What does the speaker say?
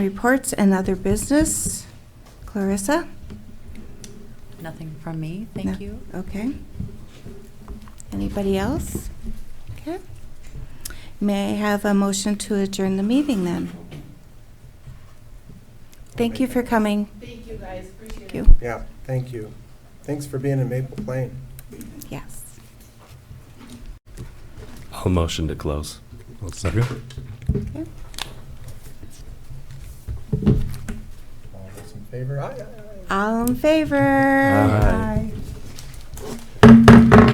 Reports and other business. Clarissa? Nothing from me, No. thank you. Okay. Anybody else? Okay. May I have a motion to adjourn the meeting then? Thank you for coming. Thank you, guys, appreciate Thank it. you. Yeah, thank you. Thanks for being in Maple Plain. Yes. I'll motion to close. One second. Okay. All those in favor? Aye, aye, aye. All in favor? Aye. Aye.